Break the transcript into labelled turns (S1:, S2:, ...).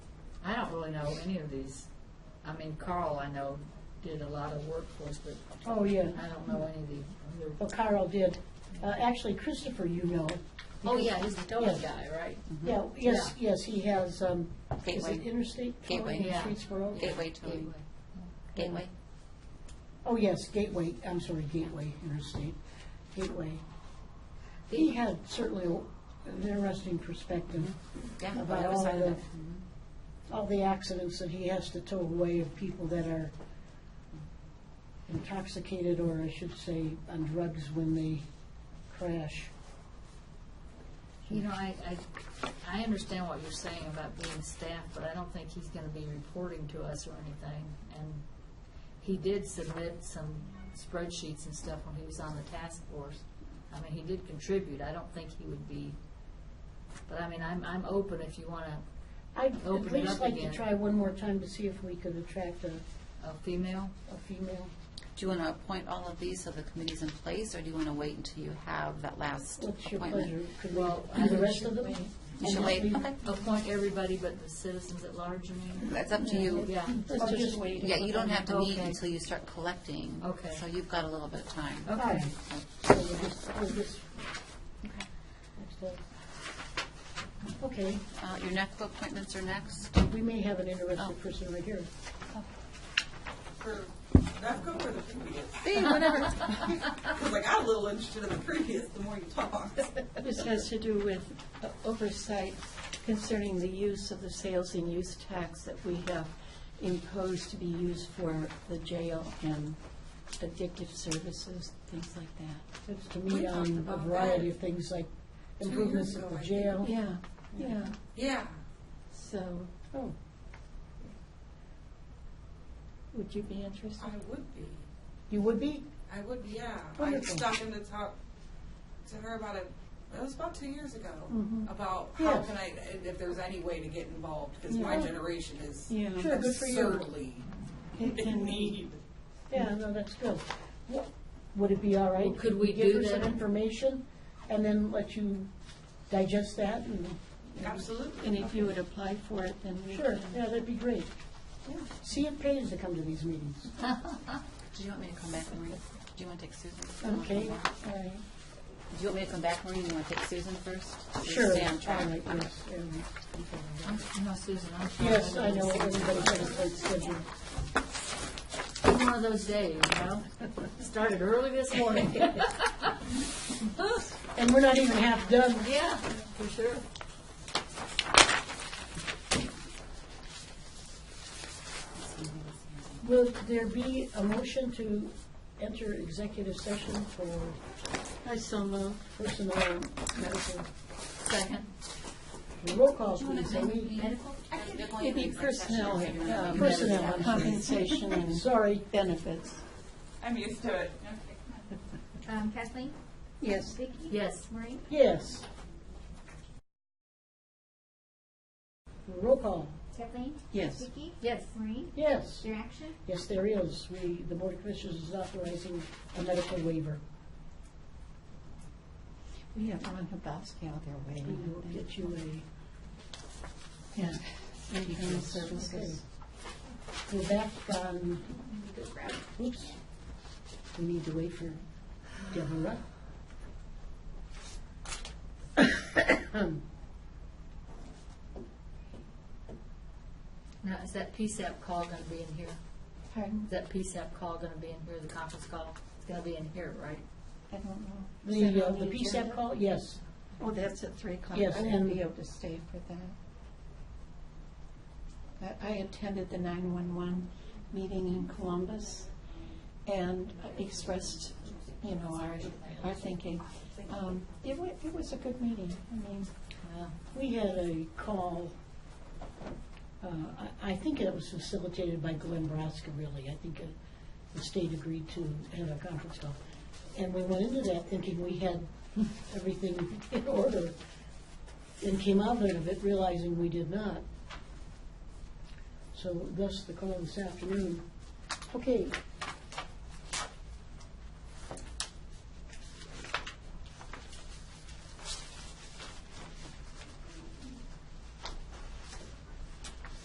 S1: don't really know any of these. I mean, Carl, I know, did a lot of work for us, but
S2: Oh, yeah.
S1: I don't know any of the
S2: Well,
S1: other.
S2: Carl did. Uh, Actually, Christopher, you know.
S1: Oh, yeah, he's the total
S2: Yes.
S1: guy, right?
S2: Yeah, yes, yes, he has, um, is
S3: Mm-hmm. Gateway.
S2: it interstate? towing
S3: Gateway.
S2: in
S1: Yeah.
S2: Streetsboro?
S3: Gateway towing, gateway.
S2: Oh, yes, Gateway, I'm sorry, Gateway Interstate, Gateway. He had certainly an interesting perspective
S3: Yeah, well,
S2: about
S3: that was
S2: all
S3: sort Mm-hmm. of
S2: the,
S3: the- Mm-hmm.
S2: all the accidents that he has to tow away of people that are intoxicated, or I should say, on drugs when they crash.
S1: You know, I, I, I understand what you're saying about being staffed, but I don't think he's gonna be reporting to us or anything. And he did submit some spreadsheets and stuff when he was on the task force. I mean, he did contribute. I don't think he would be, but I mean, I'm, I'm open if you wanna,
S2: I'd
S1: Open
S2: at
S1: it
S2: least
S1: up
S2: like to
S1: again.
S2: try one more time to see if we could attract a,
S1: a female.
S2: a female.
S3: Do you want to appoint all of these so the committee's in place, or do you want to wait until you have that last
S2: What's your
S3: appointment?
S2: pleasure? Could we
S1: Well,
S2: do
S1: I
S2: the rest of
S1: should
S2: them?
S1: wait.
S3: You should
S2: And
S3: wait,
S2: just leave-
S3: okay,
S1: Appoint everybody but the citizens at large, you mean?
S3: that's up to you.
S1: Yeah,
S2: Let's
S4: I'll
S2: just
S4: just wait.
S3: Yeah, you don't have to meet
S1: Okay.
S3: until you start collecting.
S1: Okay.
S3: So you've got a little bit of time.
S1: okay.
S2: So we'll just- we'll just- next up. Okay,
S3: Uh, Your next appointments are next.
S2: we may have an
S3: Oh.
S2: interested person right here.
S4: For, that's good for the previous.
S3: See, whatever.
S4: Because I got a little interested in the previous the more you talk.
S5: This has to do with uh, oversight concerning the use of the sales and use tax that we have imposed to be used for the jail and addictive services, things like that.
S2: It's to
S4: We
S2: meet
S4: talked
S2: on a
S4: about
S2: variety
S4: that
S2: of things like
S4: two
S2: improvements
S4: years
S2: at
S4: ago,
S2: the
S4: I think.
S2: jail.
S5: Yeah, yeah,
S4: Yeah.
S5: so
S2: Oh,
S5: would you be interested?
S4: I would be.
S2: You would be?
S4: I would, be, yeah. I
S2: Wonderful.
S4: stopped in to talk to her about it. It was about two years ago about how
S2: Yes.
S4: can I, and if there's any way to get involved because my
S5: Yeah.
S4: generation is
S5: Yeah.
S2: Sure, good for you.
S4: absurdly
S5: Can-
S4: in
S5: can
S4: need.
S2: Yeah, no, that's good. Wha- Would it be all right?
S1: Well, could we
S2: Give her
S1: do
S2: some
S1: that?
S2: information and then let you digest that and,
S4: Absolutely.
S5: And if you would apply for it, then we
S2: sure,
S5: can.
S2: yeah, that'd be great. See if pays to come to these meetings.
S3: Do you want me to come back, Maureen? Do you want to take Susan?
S2: Okay,
S3: Do
S2: all right.
S3: you want me to come back, Maureen? You want to take Susan first? Just
S2: Sure, all
S3: Stay on track.
S2: right, yes. um,
S1: I'm- No, Susan, I'm sorry.
S2: Yes, I
S1: didn't
S2: know,
S1: see you.
S2: everybody's got a tight schedule.
S1: One of those days, you know? Started early this morning.
S2: And we're not even half done.
S1: Yeah, for sure.
S2: Will there be a motion to enter executive session for
S5: I so move.
S2: personnel matters?
S1: Second.
S2: Roll call, please, Amy.
S5: It'd be personnel, um,
S2: Personnel.
S5: compensation and
S2: Sorry,
S5: benefits.
S4: I'm used to it.
S6: Um, Kathleen?
S5: Yes.
S6: Vicki?
S1: Yes.
S6: Maureen?
S2: yes. Roll call,
S6: Kathleen?
S5: Yes.
S6: Vicki?
S1: Yes.
S6: Maureen? Is
S2: yes.
S6: there action?
S2: Yes, there is. We, the Board of Commissioners is authorizing a medical waiver.
S5: We have Ron Hrabowski out there
S2: We
S5: waiting.
S3: Mm-hmm.
S2: will get you a,
S5: Yeah, maybe human services.
S2: we're back on, oops. We need to wait for Deborah.
S1: Now, is that PSAP call gonna be in here?
S5: Pardon?
S1: Is that PSAP call gonna be in here, the conference call? It's gonna be in here, right?
S5: I don't know. Is
S2: The,
S5: that
S2: uh,
S5: on
S2: the
S5: agenda?
S2: PSAP call, yes.
S5: E Oh, that's at three o'clock.
S2: Yes,
S5: I won't
S2: and-
S5: be able to stay for that. I- I attended the nine-one-one meeting in Columbus and expressed, you know, our, our thinking. Um, It wa, it was a good meeting. I mean,
S2: We had a call, uh, I I think it was facilitated by Glenn Braska, really. I think uh, the state agreed to have a conference call. And we went into that thinking we had everything in order, and came out of it realizing we did not. So thus the call this afternoon. Okay,